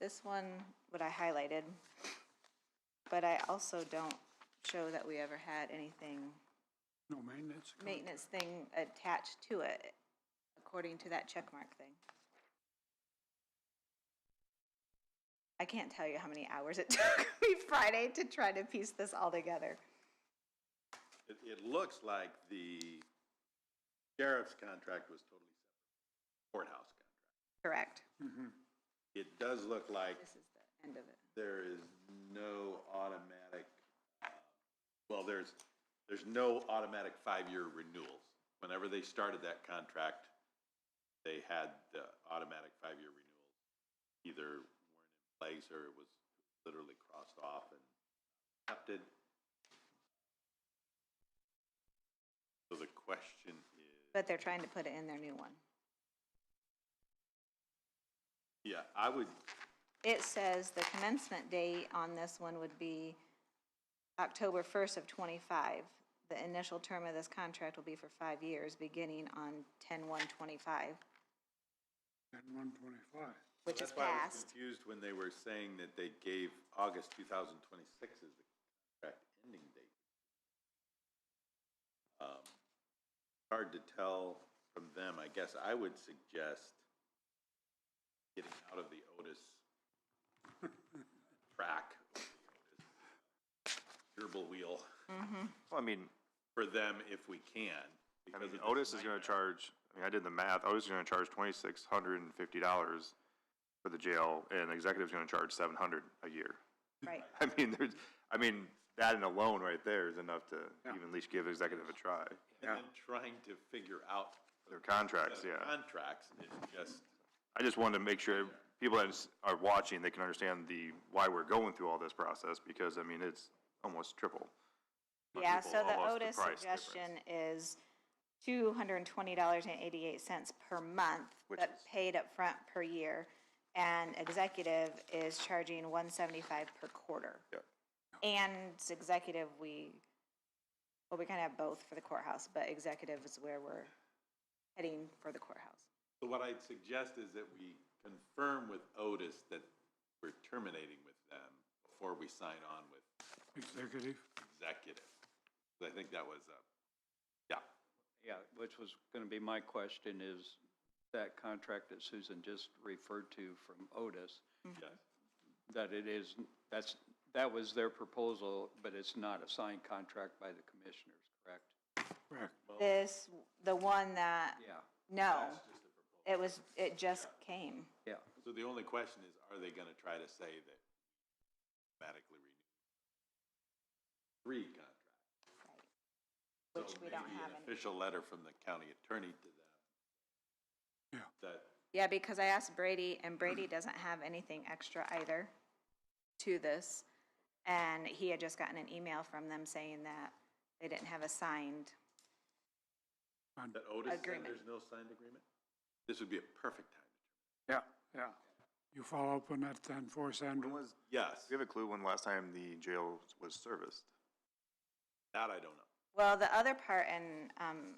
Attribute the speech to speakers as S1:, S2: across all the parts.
S1: This one, what I highlighted, but I also don't show that we ever had anything,
S2: No maintenance. account.
S1: maintenance thing attached to it, according to that checkmark thing. I can't tell you how many hours it took me Friday to try to piece this all together.
S3: It, it looks like the sheriff's contract was totally separate, from courthouse contract.
S1: Correct.
S3: It does look like
S1: This is the end of it.
S3: there is no automatic, uh, well, there's, there's no automatic five-year renewals. Whenever they started that contract, they had the automatic five-year renewals. Either weren't in place or it was literally crossed off and accepted. So the question is.
S1: But they're trying to put it in their new one.
S3: Yeah, I would,
S1: It says the commencement date on this one would be October first of twenty-five. The initial term of this contract will be for five years, beginning on ten-one twenty-five,
S2: And one twenty-five.
S1: which is
S3: that's why I was
S1: passed.
S3: confused when they were saying that they gave August 2026 as the contract ending date. Um, Hard to tell from them, I guess I would suggest getting out of the Otis track, gerbil wheel
S4: Well, I mean,
S3: for them if we can.
S4: I
S3: because
S4: mean,
S3: of this
S4: Otis is gonna
S3: nightmare.
S4: charge, I mean, I did the math, Otis is gonna charge twenty-six hundred and fifty dollars for the jail, and the executive's gonna charge seven hundred a year.
S1: Right,
S4: I mean, there's, I mean, that and alone right there is enough to even at least give executive a try.
S3: And then trying to figure out
S4: Their contracts,
S3: the
S4: yeah.
S3: contracts is just,
S4: I just wanted to make sure people that s- are watching, they can understand the, why we're going through all this process, because, I mean, it's almost triple.
S1: yeah, so the
S4: Almost the
S1: Otis
S4: price
S1: suggestion is two hundred and twenty dollars and eighty-eight cents per month,
S4: Which
S1: but
S4: is-
S1: paid upfront per year. And executive is charging one seventy-five per quarter.
S4: Yeah.
S1: And it's executive, we, well, we kind of have both for the courthouse, but executive is where we're heading for the courthouse.
S3: So what I'd suggest is that we confirm with Otis that we're terminating with them before we sign on with
S2: Executive.
S3: executive. 'Cause I think that was, uh, yeah.
S5: Yeah, which was going to be my question is that contract that Susan just referred to from Otis,
S1: Mm-hmm.
S3: yes.
S5: that it is, that's, that was their proposal, but it's not a signed contract by the commissioners, correct?
S2: Correct.
S1: This, the one that,
S5: Yeah,
S1: no,
S3: That's just a proposal.
S1: it was, it just came.
S5: yeah.
S3: So the only question is, are they gonna try to say that automatically renew? Three contract.
S1: Which
S3: So
S1: we don't
S3: maybe
S1: have
S3: an
S1: any.
S3: Official letter from the county attorney to them.
S2: Yeah.
S3: That,
S1: Yeah, because I asked Brady, and Brady doesn't have anything extra either to this. And he had just gotten an email from them saying that they didn't have a signed,
S3: that Otis said
S1: Agreement.
S3: there's no signed agreement? This would be a perfect time.
S2: Yeah, yeah. You follow up on that then for us,
S4: When
S2: Andrew?
S4: was,
S3: Yes,
S4: do you have a clue when last time the jail was serviced?
S3: that I don't know.
S1: well, the other part, and, um,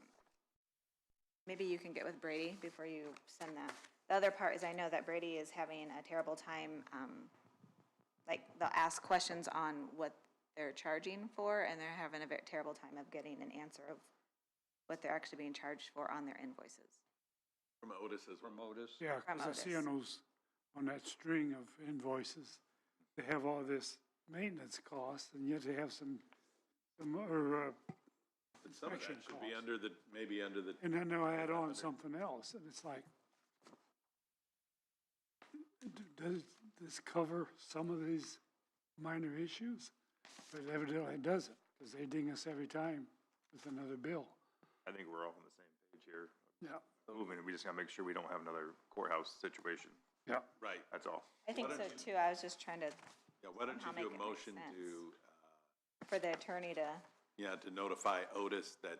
S1: maybe you can get with Brady before you send that. The other part is I know that Brady is having a terrible time, um, like, they'll ask questions on what they're charging for, and they're having a very terrible time of getting an answer of what they're actually being charged for on their invoices.
S3: From Otis as well.
S5: From Otis?
S2: Yeah, because I see on those, on that string of invoices, they have all this maintenance cost and yet they have some, some, or, uh,
S3: But some of that
S2: Construction
S3: should be
S2: costs.
S3: under the, maybe under the,
S2: and then they'll add on something else and it's like, d- does this cover some of these minor issues? But evidently it doesn't, because they ding us every time with another bill.
S4: I think we're all on the same page here.
S2: Yeah,
S4: Moving, we just gotta make sure we don't have another courthouse situation,
S2: yeah.
S3: right.
S4: that's all.
S1: I think
S3: Why
S1: so
S3: don't
S1: too, I was just trying to,
S3: Yeah, why don't
S1: Somehow
S3: you do
S1: make
S3: a
S1: it make
S3: motion
S1: sense.
S3: to, uh,
S1: for the attorney to,
S3: yeah, to notify Otis that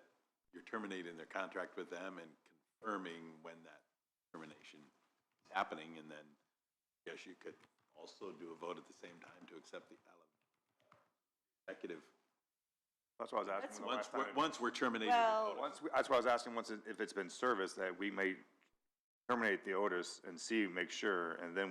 S3: you're terminating their contract with them and confirming when that termination is happening, and then, yes, you could also do a vote at the same time to accept the ele- executive.
S4: That's why I was asking. when the
S3: Once,
S4: last
S3: we're-
S4: time-
S3: once we're terminating
S1: Well-
S3: with Otis.
S4: Once, we- that's why I was asking, once, it- if it's been serviced, that we may terminate the Otis and see, make sure, and then we